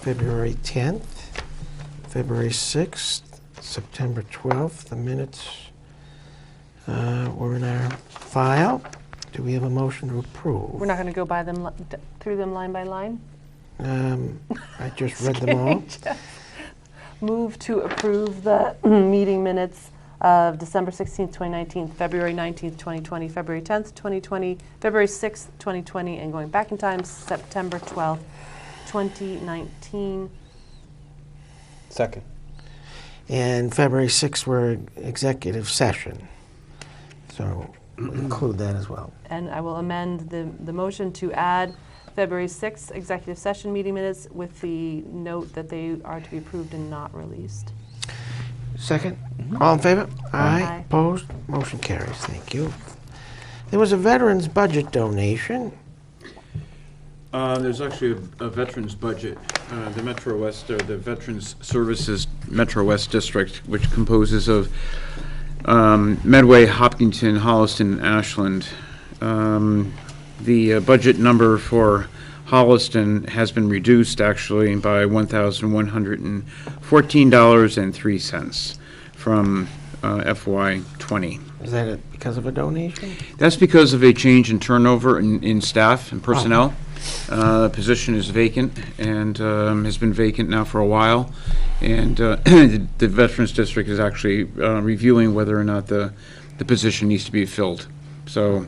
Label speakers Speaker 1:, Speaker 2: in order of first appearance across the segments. Speaker 1: February 10th, February 6th, September 12th. The minutes uh, were in our file. Do we have a motion to approve?
Speaker 2: We're not going to go by them, li- d- through them line by line?
Speaker 1: Um, I just read them all.
Speaker 2: Move to approve the mm, meeting minutes of December 16th, 2019, February 19th, 2020, February 10th, 2020, February 6th, 2020, and going back in time, September 12th, 2019.
Speaker 3: Second.
Speaker 1: And February 6th were executive session. So include that as well.
Speaker 2: And I will amend the, the motion to add February 6th executive session meeting minutes with the note that they are to be approved and not released.
Speaker 1: Second? All in favor?
Speaker 2: Aye.
Speaker 1: Aye. Opposed? Motion carries. Thank you. There was a veterans budget donation.
Speaker 4: Uh, There's actually a- a veterans budget. Uh, The Metro West, or the Veterans Services Metro West District, which composes of um, Medway, Hopkinton, Holliston, and Ashland. Um, The uh, budget number for Holliston has been reduced, actually, by $1,114.03 from uh, FY '20.
Speaker 1: Is that it because of a donation?
Speaker 4: That's because of a change in turnover in, in staff and personnel. Uh, the position is vacant and, um, has been vacant now for a while. And, uh, the Veterans District is actually, uh, reviewing whether or not the, the position needs to be filled. So,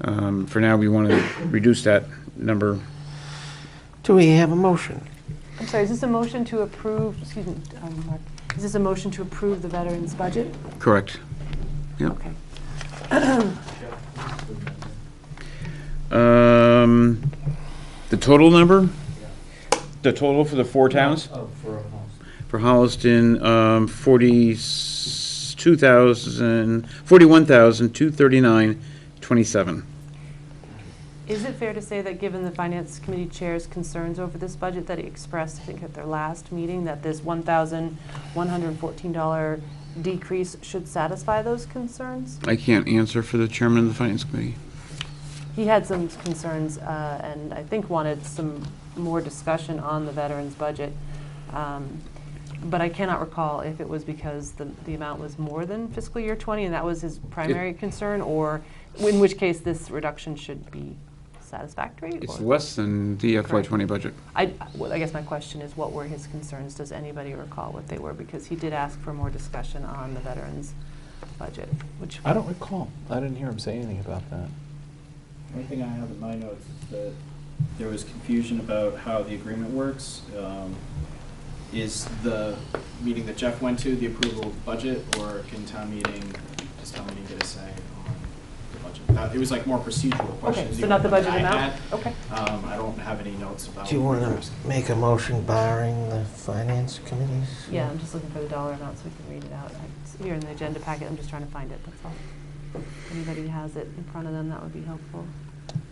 Speaker 4: um, for now, we want to reduce that number.
Speaker 1: Do we have a motion?
Speaker 2: I'm sorry, is this a motion to approve, excuse me, um, Mark, is this a motion to approve the veterans' budget?
Speaker 4: Correct. Yep.
Speaker 2: Okay.
Speaker 4: Um, the total number? The total for the four towns?
Speaker 3: oh,
Speaker 4: For Holliston, um, forty-two thousand, forty-one thousand, two thirty-nine, twenty-seven.
Speaker 2: Is it fair to say that, given the Finance Committee Chair's concerns over this budget that he expressed, I think, at their last meeting, that this $1,114 decrease should satisfy those concerns?
Speaker 4: I can't answer for the chairman of the finance committee.
Speaker 2: He had some concerns, uh, and I think wanted some more discussion on the veterans' budget. Um, But I cannot recall if it was because the, the amount was more than fiscal year 20, and that was his primary concern, or in which case this reduction should be satisfactory?
Speaker 4: It's
Speaker 2: or-
Speaker 4: less than the FY twenty budget.
Speaker 2: I, well, I guess my question is, what were his concerns? Does anybody recall what they were? Because he did ask for more discussion on the veterans' budget, which,
Speaker 3: I don't recall. I didn't hear him say anything about that.
Speaker 5: One thing I have in my notes is that there was confusion about how the agreement works. Um, Is the meeting that Jeff went to the approval of budget, or can town meeting, does town meeting get a say on the budget? Uh, It was like more procedural
Speaker 2: okay,
Speaker 5: questions.
Speaker 2: so
Speaker 5: even
Speaker 2: not the
Speaker 5: than
Speaker 2: budget
Speaker 5: I
Speaker 2: amount?
Speaker 5: had.
Speaker 2: Okay.
Speaker 5: Um, I don't have any notes about.
Speaker 1: Do you want
Speaker 5: what
Speaker 1: to make a motion barring the finance committees?
Speaker 2: Yeah, I'm just looking for the dollar amount so we can read it out. It's here in the agenda packet, I'm just trying to find it, that's all. If anybody has it in front of them, that would be helpful.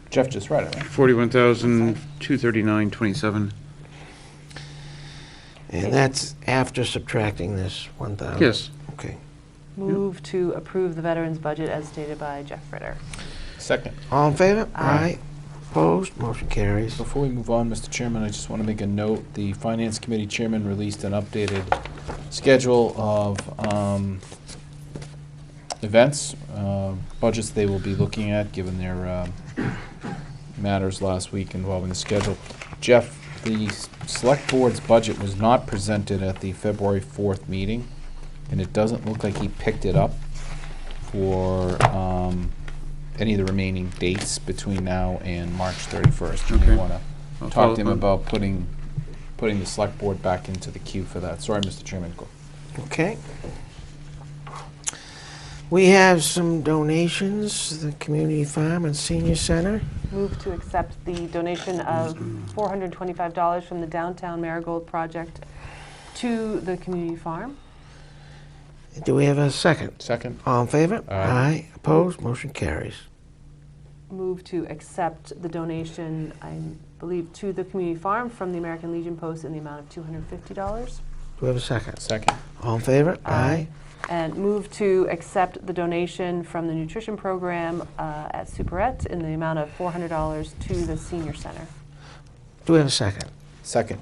Speaker 3: Jeff just read it, right?
Speaker 4: Forty-one thousand, two thirty-nine, twenty-seven.
Speaker 1: And that's after subtracting this 1,000?
Speaker 4: Yes.
Speaker 1: Okay.
Speaker 2: Move to approve the veterans' budget as stated by Jeff Ritter.
Speaker 3: Second.
Speaker 1: All in favor?
Speaker 2: Aye.
Speaker 1: Opposed? Motion carries.
Speaker 3: Before we move on, Mr. Chairman, I just want to make a note. The Finance Committee Chairman released an updated schedule of um, events, uh, budgets they will be looking at, given their um, matters last week involving the schedule. Jeff, the s- Select Board's budget was not presented at the February 4th meeting, and it doesn't look like he picked it up for um, any of the remaining dates between now and March 31st. You
Speaker 4: Okay.
Speaker 3: may
Speaker 4: um,
Speaker 3: want to
Speaker 4: I'll follow
Speaker 3: talk to him
Speaker 4: up on-
Speaker 3: about putting, putting the select board back into the queue for that. Sorry, Mr. Chairman. Go-
Speaker 1: Okay. We have some donations, the community farm and senior center.
Speaker 2: Move to accept the donation of $425 from the Downtown Marigold Project to the community farm.
Speaker 1: Do we have a second?
Speaker 3: Second?
Speaker 1: All in favor?
Speaker 3: Aye.
Speaker 1: Opposed? Motion carries.
Speaker 2: Move to accept the donation, I believe, to the community farm from the American Legion Post in the amount of $250.
Speaker 1: Do we have a second?
Speaker 3: Second.
Speaker 1: All in favor?
Speaker 2: Aye. And move to accept the donation from the nutrition program uh, at Superette in the amount of $400 to the senior center.
Speaker 1: Do we have a second?
Speaker 3: Second.